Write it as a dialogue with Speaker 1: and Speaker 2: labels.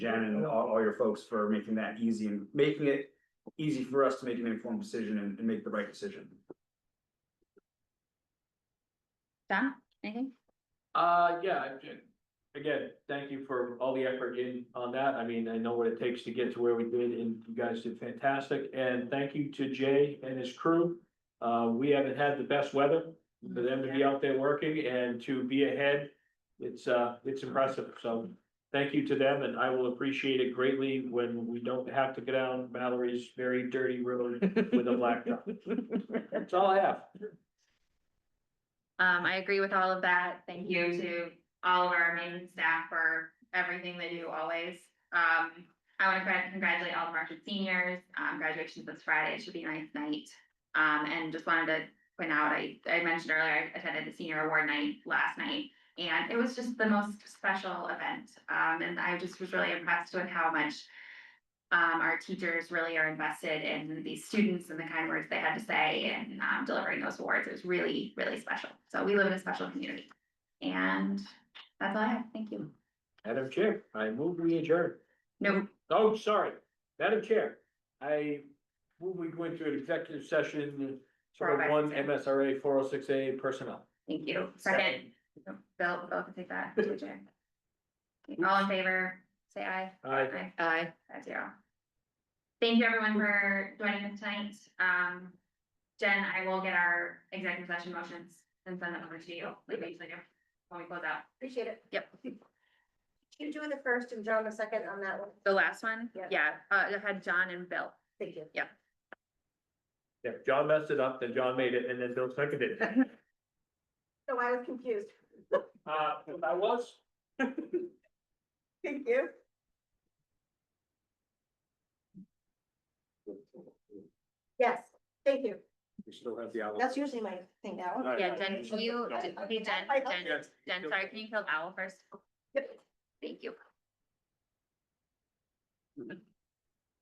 Speaker 1: Jen and all, all your folks for making that easy and making it easy for us to make an informed decision and, and make the right decision.
Speaker 2: John, anything?
Speaker 3: Uh, yeah, I'm ju- again, thank you for all the effort in on that. I mean, I know what it takes to get to where we did and you guys did fantastic. And thank you to Jay and his crew. Uh, we haven't had the best weather for them to be out there working and to be ahead. It's, uh, it's impressive. So thank you to them and I will appreciate it greatly when we don't have to go down Mallory's very dirty road with a blacktop. That's all I have.
Speaker 2: Um, I agree with all of that. Thank you to all of our amazing staff for everything they do always. Um, I want to congratulate all of our seniors. Um, graduation's this Friday. It should be a nice night. Um, and just wanted to point out, I, I mentioned earlier, I attended the senior award night last night. And it was just the most special event. Um, and I just was really impressed with how much um, our teachers really are invested in these students and the kind words they had to say and um, delivering those awards. It was really, really special. So we live in a special community. And that's all I have. Thank you.
Speaker 3: Madam Chair, I move we adjourn.
Speaker 2: No,
Speaker 3: Oh, sorry, Madam Chair, I, will we go into an executive session sort of one
Speaker 2: 406A.
Speaker 3: MSRA four oh six A personnel?
Speaker 2: thank you. Second, Bill, Bill can take that. to adjourn. All in favor, say aye.
Speaker 3: Aye.
Speaker 2: Aye,
Speaker 4: Aye.
Speaker 2: five zero. Thank you everyone for joining us tonight. Um, Jen, I will get our executive session motions and send them over to you. We usually do when we close out.
Speaker 4: Appreciate it.
Speaker 2: Yep.
Speaker 4: You doing the first and John the second on that one?
Speaker 2: The last one?
Speaker 4: Yeah.
Speaker 2: Yeah, uh, it had John and Bill.
Speaker 4: Thank you.
Speaker 3: Yeah, John messed it up, then John made it, and then Bill seconded it.
Speaker 4: No, I was confused.
Speaker 3: Uh, I was,
Speaker 4: Thank you. Yes, thank you.
Speaker 1: We still have the owl.
Speaker 4: That's usually my thing now.
Speaker 2: Yeah, Jen, can you, okay, Jen, Jen, Jen, sorry, can you kill the owl first?
Speaker 4: Yep.
Speaker 2: Thank you.